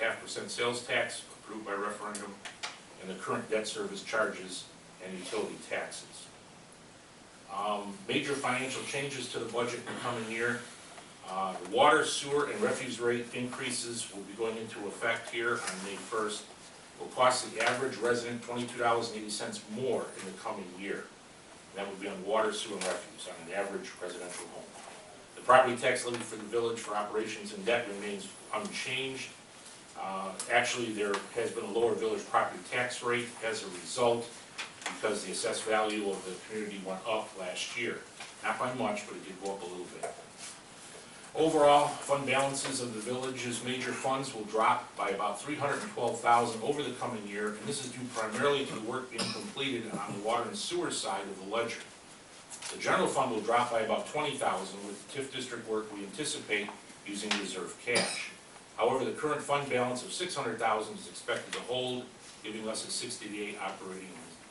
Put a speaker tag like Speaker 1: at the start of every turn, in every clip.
Speaker 1: half percent sales tax approved by referendum, and the current debt service charges and utility taxes. Um, Major financial changes to the budget in the coming year. Uh, the Water, sewer, and refuse rate increases will be going into effect here on May first. Will cost the average resident twenty-two dollars and eighty cents more in the coming year. That would be on water, sewer, and refuse on an average residential home. The property tax levy for the village for operations and debt remains unchanged. Uh, Actually, there has been a lower village property tax rate as a result because the assessed value of the community went up last year. Not by much, but it did go up a little bit. Overall, fund balances of the village's major funds will drop by about three hundred and twelve thousand over the coming year, and this is due primarily to the work being completed on the water and sewer side of the ledger. The general fund will drop by about twenty thousand with TIF district work we anticipate using reserve cash. However, the current fund balance of six hundred thousand is expected to hold, giving us a sixty-day operating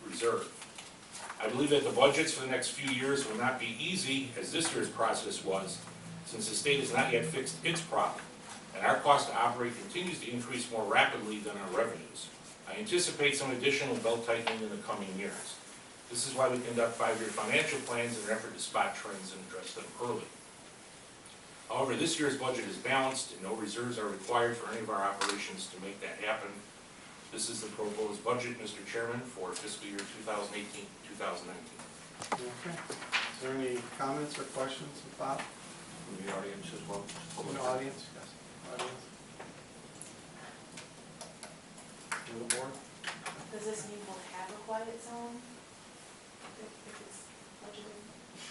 Speaker 1: reserve. I believe that the budgets for the next few years will not be easy, as this year's process was, since the state has not yet fixed its problem, and our cost to operate continues to increase more rapidly than our revenues. I anticipate some additional belt tightening in the coming years. This is why we conduct five-year financial plans in an effort to spot trends and address them early. However, this year's budget is balanced, and no reserves are required for any of our operations to make that happen. This is the proposed budget, Mr. Chairman, for fiscal year 2018, 2019.
Speaker 2: Okay. Is there any comments or questions about
Speaker 1: From the audience as well.
Speaker 2: from the audience? Yes. Audience? To the board?
Speaker 3: Does this mean we'll have a quiet zone? If- if it's budgeted?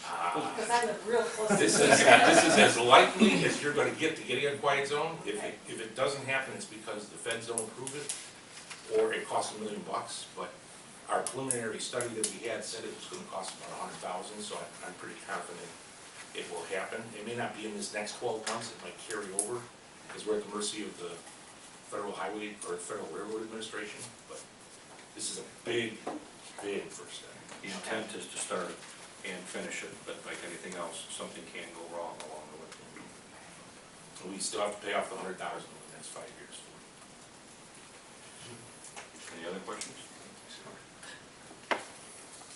Speaker 1: Ah,
Speaker 3: Because I live real close to
Speaker 1: This is, this is as likely as you're gonna get to getting a quiet zone. If it, if it doesn't happen, it's because the feds don't approve it, or it costs a million bucks, but our preliminary study that we had said it was gonna cost about a hundred thousand, so I- I'm pretty confident it will happen. It may not be in this next twelve months, it might carry over, because we're at the mercy of the Federal Highway, or Federal Railroad Administration, but this is a big, big first step.
Speaker 4: The intent is to start and finish it, but like anything else, something can go wrong along the way.
Speaker 1: And We still have to pay off the hundred thousand in the next five years.
Speaker 4: Any other questions?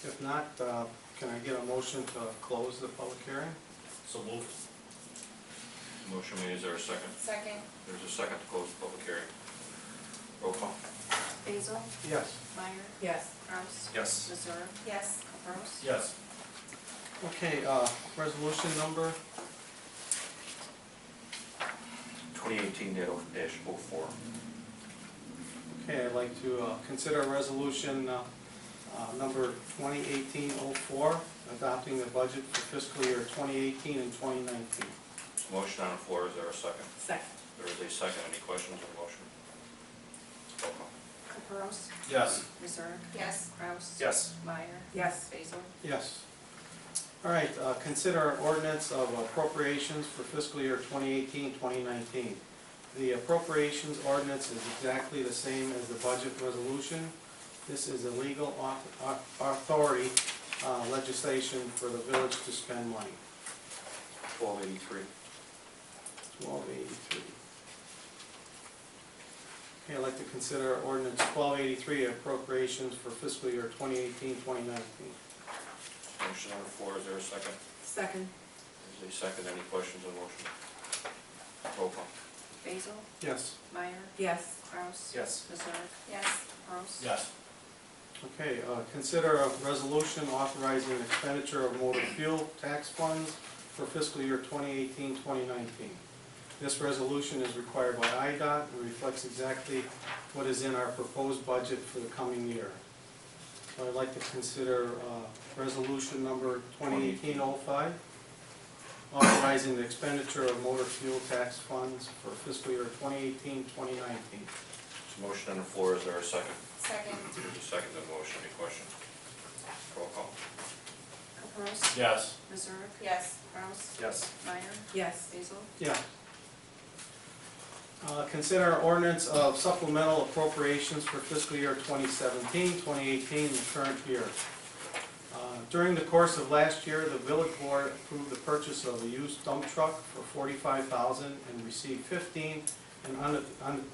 Speaker 2: If not, uh, can I get a motion to close the public hearing?
Speaker 1: So moved.
Speaker 4: Motion made, is there a second?
Speaker 3: Second.
Speaker 4: There's a second to close the public hearing. Roll call.
Speaker 5: Basil,
Speaker 2: Yes.
Speaker 5: Meyer,
Speaker 3: Yes.
Speaker 5: Kraus,
Speaker 4: Yes.
Speaker 5: Missouri,
Speaker 3: Yes.
Speaker 5: Capros.
Speaker 1: Yes.
Speaker 2: Okay, uh, resolution number,
Speaker 4: 2018-04.
Speaker 2: okay, I'd like to uh, consider resolution uh, uh, number 2018-04, adopting the budget for fiscal year 2018 and 2019.
Speaker 4: Motion on the floor, is there a second?
Speaker 3: Second.
Speaker 4: There is a second, any questions on the motion? Roll call.
Speaker 5: Capros,
Speaker 2: Yes.
Speaker 5: Missouri,
Speaker 3: Yes.
Speaker 5: Kraus.
Speaker 4: Yes.
Speaker 5: Meyer,
Speaker 3: Yes.
Speaker 5: Basil,
Speaker 2: Yes. All right, uh, consider ordinance of appropriations for fiscal year 2018, 2019. The appropriations ordinance is exactly the same as the budget resolution. This is a legal au- au- authority uh, legislation for the village to spend money.
Speaker 4: 1283.
Speaker 2: 1283. Okay, I'd like to consider ordinance 1283 appropriations for fiscal year 2018, 2019.
Speaker 4: Motion on the floor, is there a second?
Speaker 3: Second.
Speaker 4: There's a second, any questions on the motion? Roll call.
Speaker 5: Basil,
Speaker 2: Yes?
Speaker 5: Meyer,
Speaker 3: Yes.
Speaker 5: Kraus.
Speaker 4: Yes.
Speaker 5: Missouri,
Speaker 3: Yes.
Speaker 5: Capros.
Speaker 4: Yes.
Speaker 2: Okay, uh, consider a resolution authorizing expenditure of motor fuel tax funds for fiscal year 2018, 2019. This resolution is required by IDOT and reflects exactly what is in our proposed budget for the coming year. So I'd like to consider uh, resolution number 2018-05, authorizing the expenditure of motor fuel tax funds for fiscal year 2018, 2019.
Speaker 4: Motion on the floor, is there a second?
Speaker 3: Second.
Speaker 4: There's a second to the motion, any questions? Roll call.
Speaker 5: Capros,
Speaker 1: Yes.
Speaker 5: Missouri,
Speaker 3: Yes.
Speaker 5: Kraus,
Speaker 4: Yes.
Speaker 5: Meyer,
Speaker 3: Yes.
Speaker 5: Basil,
Speaker 2: Yeah. Uh, Consider ordinance of supplemental appropriations for fiscal year 2017, 2018, and the current year. Uh, During the course of last year, the village board approved the purchase of a used dump truck for $45,000 and received 15 in un- un-